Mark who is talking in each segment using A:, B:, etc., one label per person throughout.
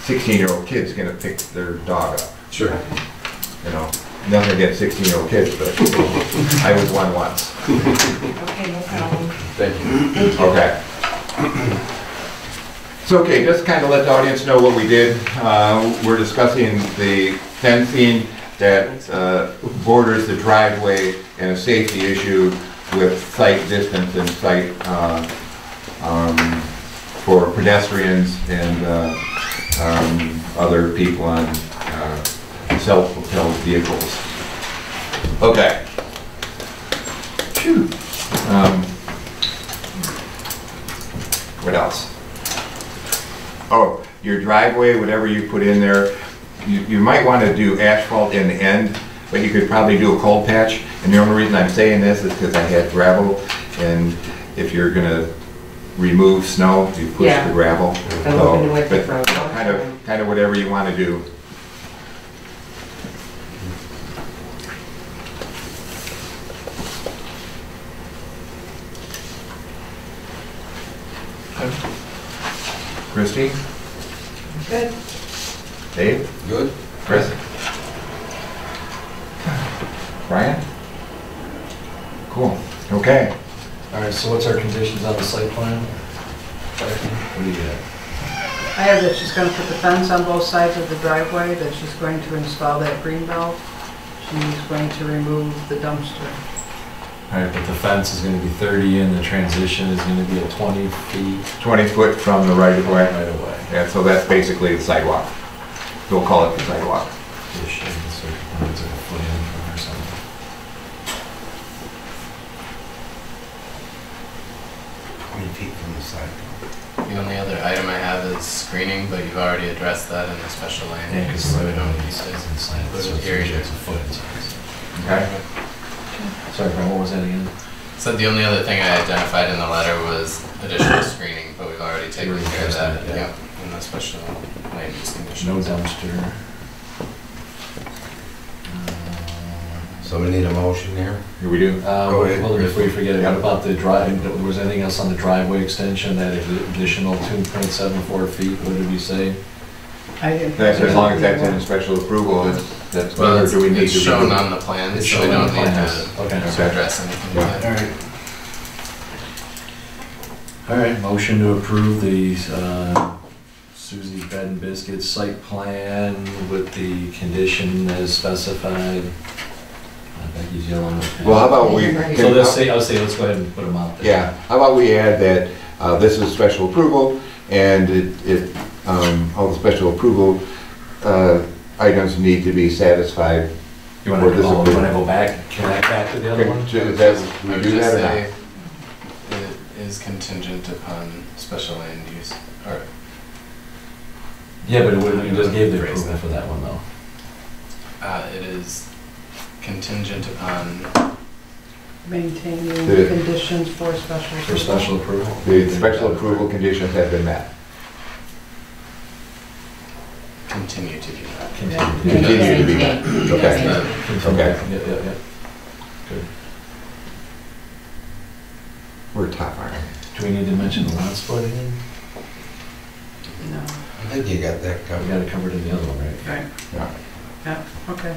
A: sixteen-year-old kid's gonna pick their dog up,
B: Sure.
A: you know? Nothing against sixteen-year-old kids, but I was one once.
C: Okay, no problem.
B: Thank you.
A: Okay. So, okay, just kind of let the audience know what we did. Uh, We're discussing the fencing that uh, borders the driveway and a safety issue with sight distance and sight uh, um, for pedestrians and uh, um, other people on uh, self-propelled vehicles. Okay. Phew. Um, what else? Oh, your driveway, whatever you put in there, you, you might want to do asphalt in the end, but you could probably do a cold patch. And the only reason I'm saying this is because I had gravel, and if you're gonna remove snow, you push
C: Yeah.
A: the gravel.
C: I'm
A: So,
C: open to what
A: but
C: the road-
A: Kind of, kind of whatever you want to do. Christie,
C: Good.
A: Dave,
B: Good?
A: Chris? Brian? Cool, okay.
D: All right, so what's our conditions on the site plan?
A: What do you got?
E: I have that she's going to put the fence on both sides of the driveway, that she's going to install that green belt. She's going to remove the dumpster.
D: All right, but the fence is gonna be thirty and the transition is gonna be at twenty feet
A: 20 foot from the right of way?
D: right away.
A: And so that's basically the sidewalk. We'll call it the sidewalk.
D: Ish, and it's like, what is it, a foot in from or
F: Twenty
D: something?
F: feet from the sidewalk.
G: The only other item I have is screening, but you've already addressed that in the special land
D: Yeah,
G: use,
D: 'cause
G: so we
D: it's
G: don't
D: like-
G: need
D: It's
G: to.
D: inside,
G: But
D: so
G: it's
D: it's
G: here,
D: usually
G: yeah.
D: it's a foot. inside.
A: Okay?
D: Sorry, Brian, what was that again?
G: So the only other thing I identified in the letter was additional screening, but we've already taken
D: We're
G: care of that,
D: addressing it, yeah.
G: yeah, in the special land use
D: No
G: conditions.
D: dumpster.
F: So we need a motion here?
A: Here we do.
D: Uh,
F: Go ahead,
D: well, if we forget it,
A: Yeah.
D: what about the drive, was anything else on the driveway extension, that additional two point seven four feet, what did we say?
E: I didn't.
A: That's as long as that's in special approval, it's, that's,
G: Well,
A: or
G: it's
A: do we need
G: it's
A: to?
G: shown
A: redo-
G: on the plan,
D: It's
G: so we
D: shown on
G: don't
D: the
G: need
D: plans.
G: to
D: Okay.
G: to address anything.
A: Yeah.
G: yet.
D: All right, motion to approve the uh, Suzie's Bed and Biscuits site plan with the condition as specified. Uh, Becky's yelling.
A: Well, how about we?
D: So let's say, I'll say, let's go ahead and put them out there.
A: Yeah, how about we add that uh, this is special approval, and it, it, um, all the special approval uh, items need to be satisfied.
D: You want to
A: for this
D: go, you want
A: approval.
D: to go back, connect back to the other one?
A: Okay, Is that,
G: I
A: we
G: would
A: do
G: just
A: that or not?
G: say It is contingent upon special land use, or
D: Yeah, but it wouldn't- you just gave the
G: Raise that.
D: approval for that one though.
G: Uh, it is contingent upon,
E: Maintaining
A: The-
E: the conditions for special.
D: For special approval?
A: The special approval conditions have been met.
G: continue to do that.
D: Continue.
A: Continue
D: Yeah,
A: to be met.
C: Maintain.
A: Okay.
G: That's
C: Maintain.
G: the-
D: continue.
A: Okay.
D: Yeah, yeah, yeah.
A: We're top, aren't we?
D: Do we need to mention the lot split again?
E: No,
F: I think you got that
D: We
F: covered.
D: got it covered in the other one, right?
E: right,
A: Yeah.
E: okay.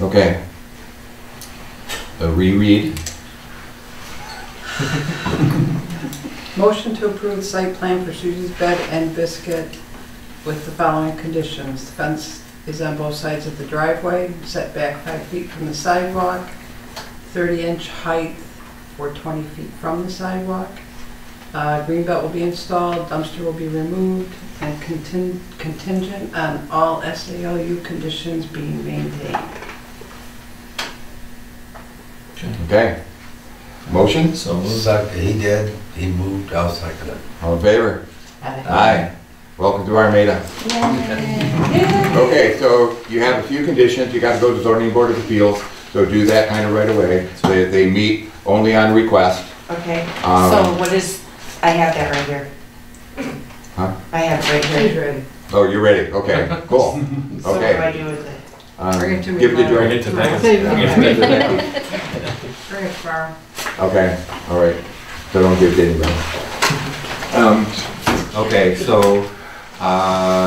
A: Okay. A reread?
E: Motion to approve the site plan for Susie's Bed and Biscuit with the following conditions. The Fence is on both sides of the driveway, set back five feet from the sidewalk, 30-inch height or 20 feet from the sidewalk. Uh, Green belt will be installed, dumpster will be removed, and contin- contingent on all SALU conditions being maintained.
A: Okay. Motion?
D: So,
F: Suck- He did, he moved, I'll second it.
A: All in favor? Aye. Welcome to Armada. Okay, so you have a few conditions, you gotta go to zoning board of appeals, so do that kind of right away, so that they meet only on request.
C: Okay,
A: Um,
C: so what is, I have that right here.
A: Huh?
C: I have it right
E: She's
C: here.
E: ready.
A: Oh, you're ready, okay, cool,
C: So what do I
A: okay.
C: do with it?
A: Um,
E: Bring it to me
A: Give the
E: tomorrow.
A: joint.
D: it to Megan.
E: Bring it tomorrow.
A: Okay, all right, so don't give it to anybody. Um, Okay, so, uh,